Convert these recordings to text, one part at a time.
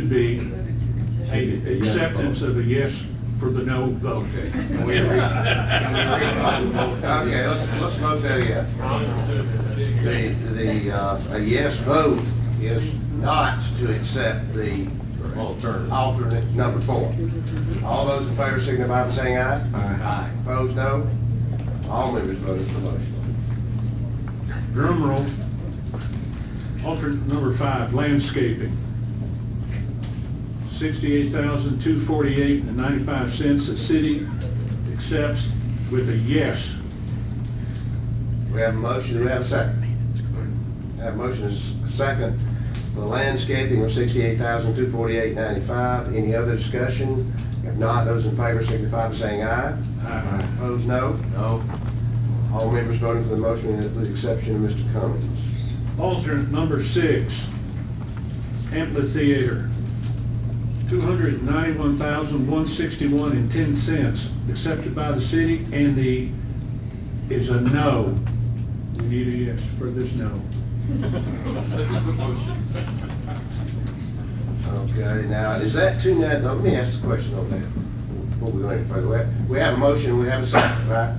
should be a acceptance of a yes for the no vote. Okay, can we re- can we re- okay, let's, let's vote that yet. The, the, uh, a yes vote is not to accept the Alternative. alternate number four. All those in favor signify by saying aye. Aye. Opposed, no? All members voted for the motion. Drum roll. Alternate number five, landscaping. Sixty-eight thousand, two forty-eight and ninety-five cents. The city accepts with a yes. We have a motion, do we have a second? Have a motion is second for the landscaping of sixty-eight thousand, two forty-eight, ninety-five. Any other discussion? If not, those in favor signify by saying aye. Aye. Opposed, no? No. All members voting for the motion, with the exception of Mr. Cummings. Alternate number six, amphitheater. Two hundred ninety-one thousand, one sixty-one and ten cents accepted by the city and the, is a no. We need a yes for this no. Okay, now, is that two ninety, let me ask the question on that, before we go any further. We have- We have a motion, we have a second, right?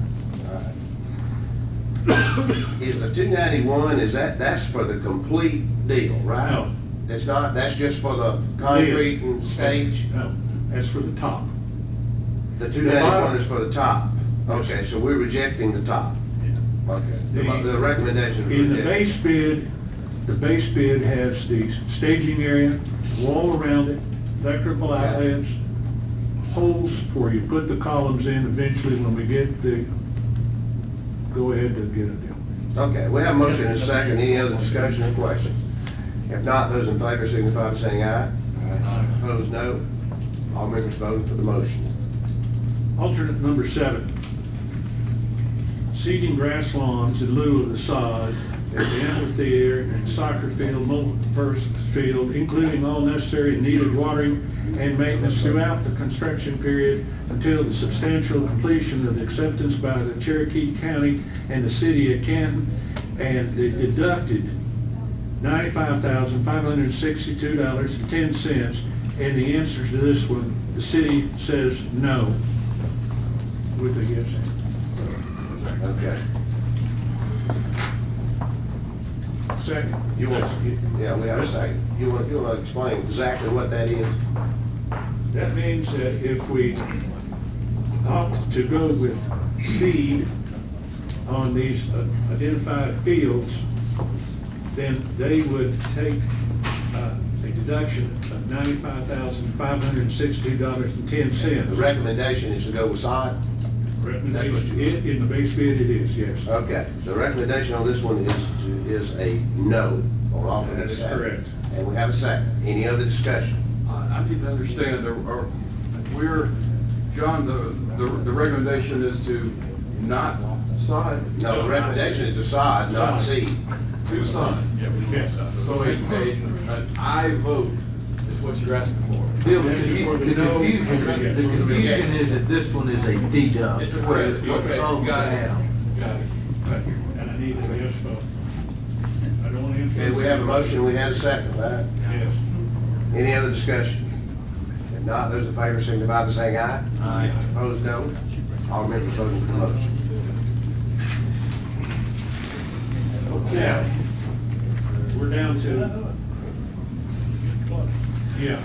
All right. Is the two ninety-one, is that, that's for the complete deal, right? No. It's not, that's just for the concrete and stage? No, that's for the top. The two ninety-one is for the top? Okay, so we're rejecting the top? Okay. The the recommendation is In the rejected. base bid, the base bid has the staging area, wall around it, electrical outlets, holes where you put the columns in eventually when we get the, go ahead to get it down. Okay, we have a motion and a second, any other discussion or questions? If not, those in favor signify by saying aye. Aye. Opposed, no. All members voting for the motion. Alternate number seven, seeding grass lawns in lieu of the sod at the amphitheater and soccer field, multipurpose field, including all necessary and needed watering and maintenance throughout the construction period until the substantial completion of the acceptance by the Cherokee County and the city of Canton, and the deducted ninety-five thousand, five hundred and sixty-two dollars and ten cents. And the answer to this one, the city says no with a yes. Okay. Second. You want, yeah, we have a second. You want, you want to explain exactly what that is? That means that if we opt to go with seed on these uh, identified fields, then they would take uh, a deduction of ninety-five thousand, five hundred and sixty dollars and ten The cents. recommendation is to go with sod? That's what Recommendation, you- Uh, in, in the base bid it is, yes. Okay, the recommendation on this one is, to- is a no on alternate That is seven. correct. And we have a second. Any other discussion? I I need to understand, there are- we're, John, the, the the recommendation is to not sign. No, the recommendation is a sod, not seed. To sign. Yes. So a, a, an aye vote is what you're asking for. Bill, the confu- the confusion, the confusion is that this one is a deduct, It's a where credit. where Okay, the old got it. have. Got it. And I need a yes vote. I don't want to answer. Okay, we have a motion, we have a second, right? Yes. Any other discussion? If not, those in favor signify by saying aye. Aye. Opposed, no. All members voting for the motion. Now, we're down to, yeah.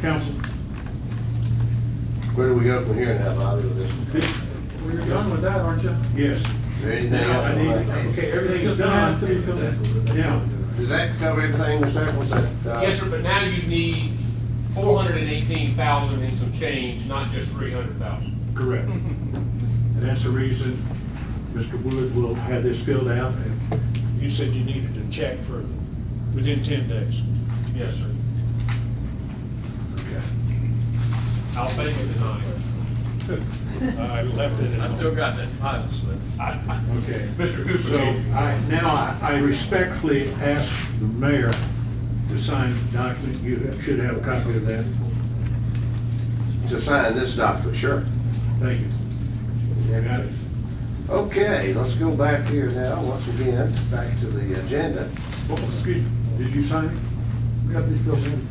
Council, Where do we go from here now, Bobby, with this? Is this, You're done with that, aren't you? yes. there anything Now, else? I on need, that? okay, everything's done. Now, Does that cover everything, Mr. Eccles? uh, Yes, sir, but now you need four hundred and eighteen thousand and some change, not just three hundred thousand. correct. And that's the reason Mr. Wood will have this filled out. and You said you needed to check for, within ten days. Yes, sir. I'll make it tonight. I left it. I still got that deposit slip. Okay. Mr. So Cooper, I, now I- I respectfully ask the mayor to sign the document. You should have a copy of that. To sign this document, sure. Thank you. You got it? Okay, let's go back here now, once again, back to the agenda. Oh, Excuse me, did you sign it?